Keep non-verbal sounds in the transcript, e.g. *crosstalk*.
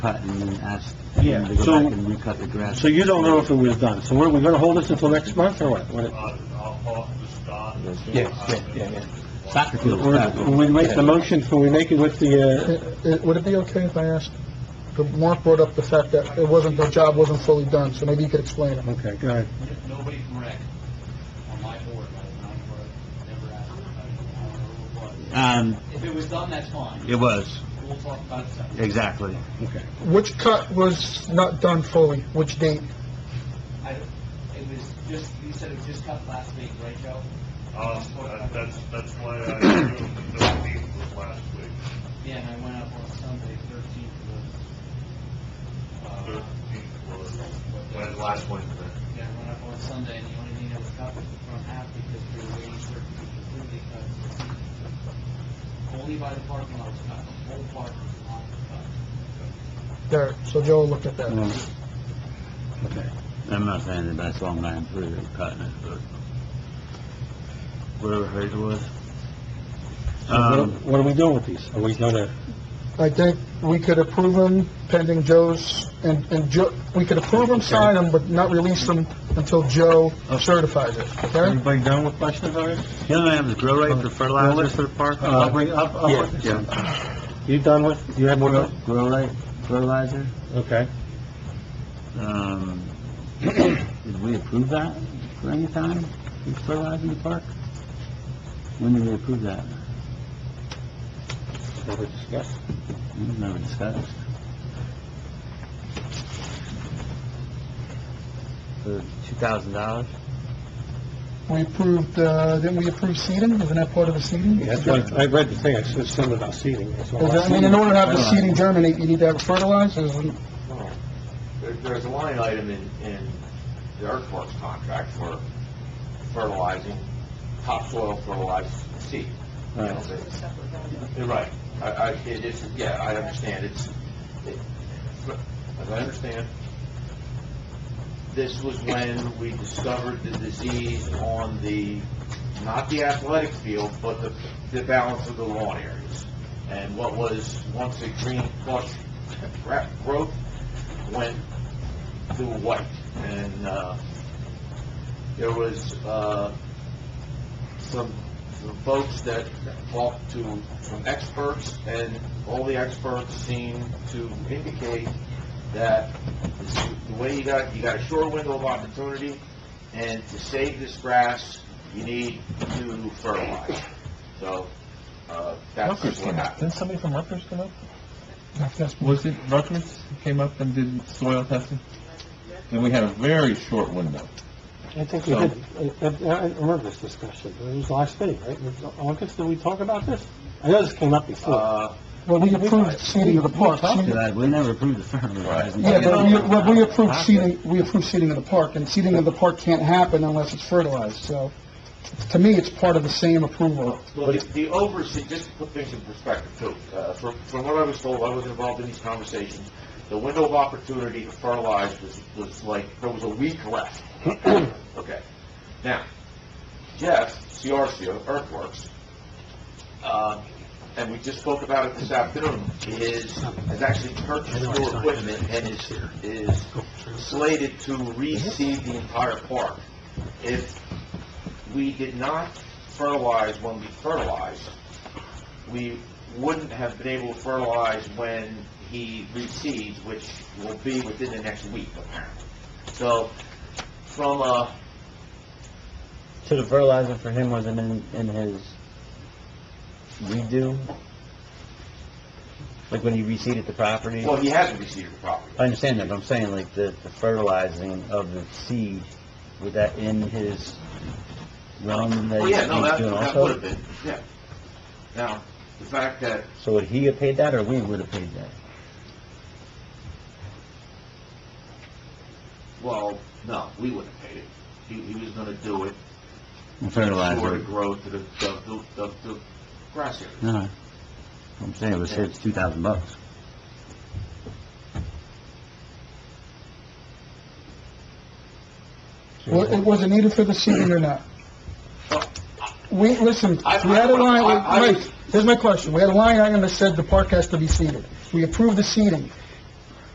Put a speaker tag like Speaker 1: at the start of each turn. Speaker 1: cut and then ask him to
Speaker 2: Yeah,
Speaker 1: go
Speaker 2: so-
Speaker 1: back and recut the grass.
Speaker 2: So you don't know if it was done, so we're, we're gonna hold this until next month, or what? What-
Speaker 3: I'll, I'll talk to Scott.
Speaker 2: Yeah, yeah, yeah, yeah.
Speaker 1: Soccer field,
Speaker 2: Or, when we make the motion, can we make it with the,
Speaker 4: Uh, uh, Would it be okay if I asked, Mark brought up the fact that it wasn't, the job wasn't fully done, so maybe you could explain it.
Speaker 2: uh, okay, go ahead.
Speaker 3: Nobody from rec on my board, I was not for it, never asked about it, I don't know what it
Speaker 1: Um,
Speaker 3: was. If it was done, that's fine,
Speaker 1: it was,
Speaker 3: we'll talk about it separately.
Speaker 1: exactly.
Speaker 2: Okay.
Speaker 4: Which cut was not done fully, which date?
Speaker 3: I don't- It was just, you said it was just cut last week, right, Joe?
Speaker 5: Um, that- that's, that's why I assumed the thirteenth was last week.
Speaker 3: Yeah, and I went up on Sunday, thirteenth was, uh,
Speaker 5: Thirteenth was, when last Wednesday.
Speaker 3: yeah, I went up on Sunday, and the only thing that was cut was the front half, because we were waiting for it to be completely cut. Only by the parking lot was cut, the whole parking lot was cut.
Speaker 4: There, so Joe looked at that.
Speaker 2: Mm. Okay.
Speaker 1: I'm not saying that that's all man through the cutting it, but whatever hurt it was.
Speaker 2: So what are-
Speaker 1: Um,
Speaker 2: what are we doing with these? Are we gonna,
Speaker 4: I think we could approve them pending Joe's, and, and Joe, we could approve them, sign them, but not release them until Joe certifies it, okay?
Speaker 2: everybody done with questions already?
Speaker 1: the other item is grow rate for fertilizers for the park.
Speaker 2: I'll Uh, bring, I'll, I'll...
Speaker 1: Yeah, yeah.
Speaker 2: You done with, you have more?
Speaker 1: Grow
Speaker 2: to-
Speaker 1: grow rate, fertilizer,
Speaker 2: Okay.
Speaker 1: um, *coughs* did we approve that for any time, fertilizing the park? When did we approve that?
Speaker 2: What we discussed?
Speaker 1: We never discussed. For two thousand dollars?
Speaker 2: Mm-hmm.
Speaker 4: We approved, uh, didn't we approve seating? Isn't that part of the seating?
Speaker 2: Yeah, That's what, I I read the thing, it said something about seating. That's all
Speaker 4: Is
Speaker 2: I
Speaker 4: that, I mean, in order to have the seeding germinate, you need to have fertilizer, isn't-
Speaker 6: There, there's a line item in, in the earthworks contract for fertilizing, topsoil fertilized seed.
Speaker 1: Right.
Speaker 6: You're right. I, I, it is, yeah, I understand, it's, it- as I understand, this was when we discovered the disease on the, not the athletic field, but the, the balance of the lawn areas. And what was once a green plush gra- growth went to white. And, uh, there was, uh, some some folks that talked to some experts, and all the experts seem to indicate that this- the way you got, you got a short window of opportunity, and to save this grass, you need to fertilize. So, uh, that's just what happened.
Speaker 7: somebody from Rutgers come up?
Speaker 4: that's
Speaker 7: Was it Rutgers who came up and did soil testing? And we had a very short window.
Speaker 2: I think we did, I- I I remember this discussion, it was last thing, right? It was August, did we talk about this? I know this came up before.
Speaker 6: Uh,
Speaker 4: Well, we approved seeding of the park.
Speaker 1: Did I- We never approved the fertilizing.
Speaker 4: Yeah, but we, well, we approved seeding, we approved seeding of the park, and seeding of the park can't happen unless it's fertilized, so to me, it's part of the same approval.
Speaker 6: Well, the- the overseas, just to put things in perspective too, uh, from, from what I was told, I was involved in these conversations, the window of opportunity to fertilize was, was like, there was a week left. Okay. Now, Jeff, CRCO, Earthworks, uh, and we just spoke about it this afternoon, is, has actually purchased new equipment and is, is slated to reseed the entire park. If we did not fertilize when we fertilized, we wouldn't have been able to fertilize when he reseeds, which will be within the next week, apparently. So, from uh, a,
Speaker 1: So the fertilizer for him wasn't in, in his redo? Like when he reseeded the property?
Speaker 6: well, he hasn't reseeded the property.
Speaker 1: I understand that, but I'm saying like the, the fertilizing of the seed, was that in his realm that
Speaker 6: Oh,
Speaker 1: he
Speaker 6: yeah, no,
Speaker 1: was
Speaker 6: that,
Speaker 1: doing
Speaker 6: that would
Speaker 1: also?
Speaker 6: have been, yeah. Now, the fact that,
Speaker 1: So would he have paid that, or we would have paid that?
Speaker 6: well, no, we wouldn't have paid it. He, he was gonna do it, sort of
Speaker 1: Fertilizer.
Speaker 6: growth of the, of the, of the grass area.
Speaker 1: No, I'm saying it was his two thousand bucks.
Speaker 4: Wa- It wasn't needed for the seeding or not? We, listen, we had a line, wait, Mike, here's my question, we had a line item that said the park has to be seeded. We approved the seeding.